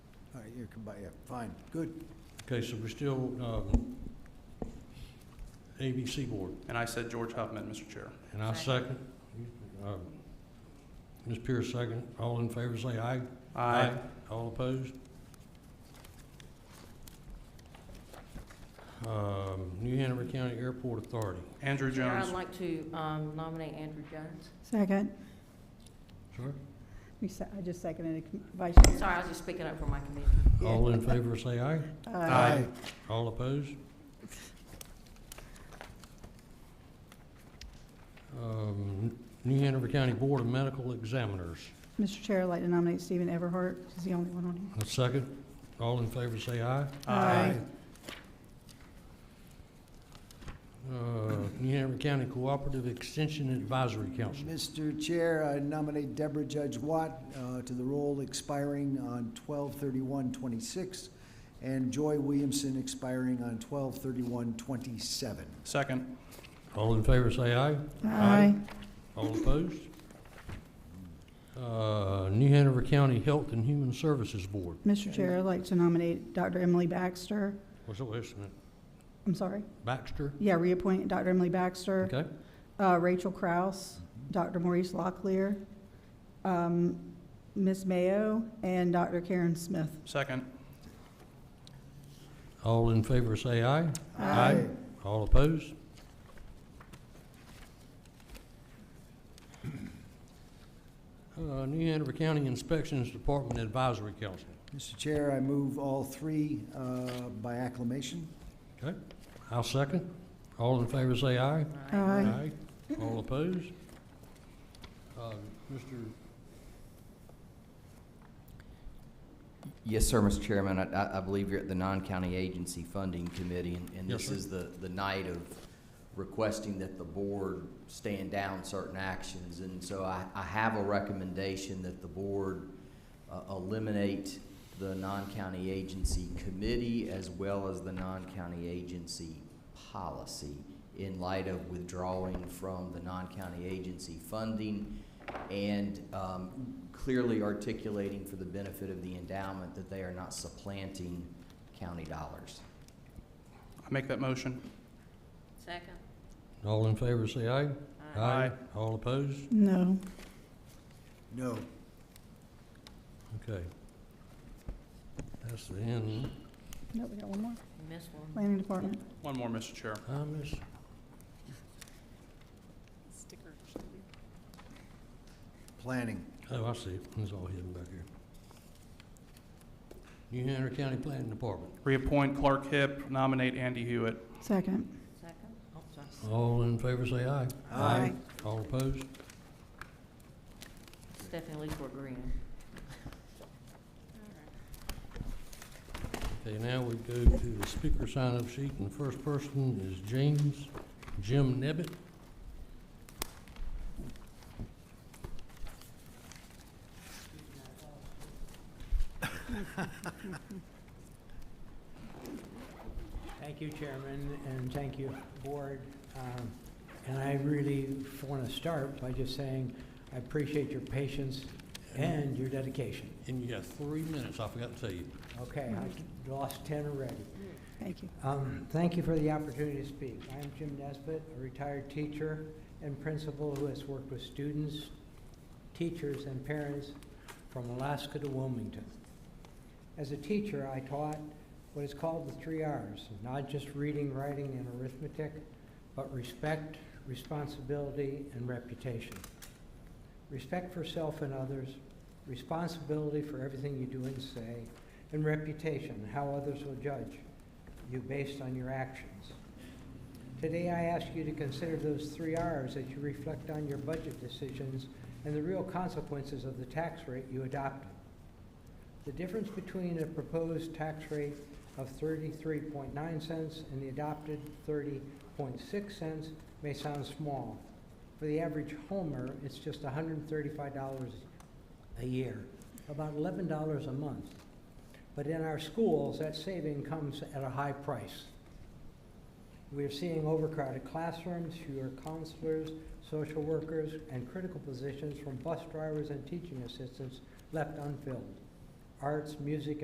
All right, you can buy it, fine, good. Okay, so we're still, um, ABC Board, And I said George Huffman, Mr. Chair. and I second. Um, Ms. Pierce, second. All in favor, say aye. All opposed? Um, New Hanover County Airport Authority. Andrew Chair, I'd Jones. like to um, nominate Andrew Jones. Second. Sir? You se- I just seconded it, Vice Chair. Sorry, I was just speaking up for my committee. All in favor, say aye. Uh, All opposed? Um, New Hanover County Board of Medical Examiners. Mr. Chair, I'd like to nominate Stephen Everhart. He's the only one on here. A second. All in favor, say aye. Aye. Uh, New Hanover County Cooperative Extension Advisory Council. Mr. Chair, I nominate Deborah Judge Watt uh, to the role expiring on 12/31/26, and Joy Williamson expiring on 12/31/27. Second. All in favor, say aye. Aye. All opposed? Uh, New Hanover County Health and Human Services Board. Mr. Chair, I'd like to nominate Dr. Emily Baxter. What's the last name? I'm sorry. Baxter? Yeah, reappoint Dr. Emily Baxter. Okay. Uh, Rachel Kraus, Dr. Maurice Locklear, um, Ms. Mayo, and Dr. Karen Smith. Second. All in favor, say aye. Aye. All opposed? Uh, New Hanover County Inspections Department Advisory Council. Mr. Chair, I move all three uh, by acclamation. Okay, I'll second. All in favor, say aye. Aye. All opposed? Uh, Mr. Yes, sir, Mr. Chairman. I- I, I believe you're at the non-county agency funding committee, and, and Yes, this sir. is the, the night of requesting that the board stand down certain actions. And so I, I have a recommendation that the board uh, eliminate the non-county agency committee as well as the non-county agency policy in light of withdrawing from the non-county agency funding and um, clearly articulating for the benefit of the endowment that they are not supplanting county dollars. I make that motion. Second. All in favor, say aye. Aye. All opposed? No. No. Okay. That's the end. Nope, we got one more. Missed one. Planning Department. One more, Mr. Chair. I miss, Planning. oh, I see it. It's all hidden back here. New Hanover County Planning Department. Reappoint Clark Hip, nominate Andy Hewitt. Second. Second. Oh, sorry. All in favor, say aye. Aye. All opposed? Stephanie Leesburg Green. Okay, now we go to the speaker sign-up sheet, and the first person is James, Jim Nebbit. Thank you, Chairman, and thank you, Board. Um, And I really want to start by just saying, I appreciate your patience and your dedication. And you got three minutes, I forgot to tell you. Okay, I lost 10 already. Thank you. Um, Thank you for the opportunity to speak. I'm Jim Nesbitt, a retired teacher and principal who has worked with students, teachers, and parents from Alaska to Wilmington. As a teacher, I taught what is called the three Rs, not just reading, writing, and arithmetic, but respect, responsibility, and reputation. Respect for self and others, responsibility for everything you do and say, and reputation, how others will judge you based on your actions. Today, I ask you to consider those three Rs as you reflect on your budget decisions and the real consequences of the tax rate you adopted. The difference between a proposed tax rate of 33.9 cents and the adopted 30.6 cents may sound small. For the average homer, it's just $135 a year, about $11 a month. But in our schools, that saving comes at a high price. We are seeing overcrowded classrooms, fewer counselors, social workers, and critical positions from bus drivers and teaching assistants left unfilled. Arts, music,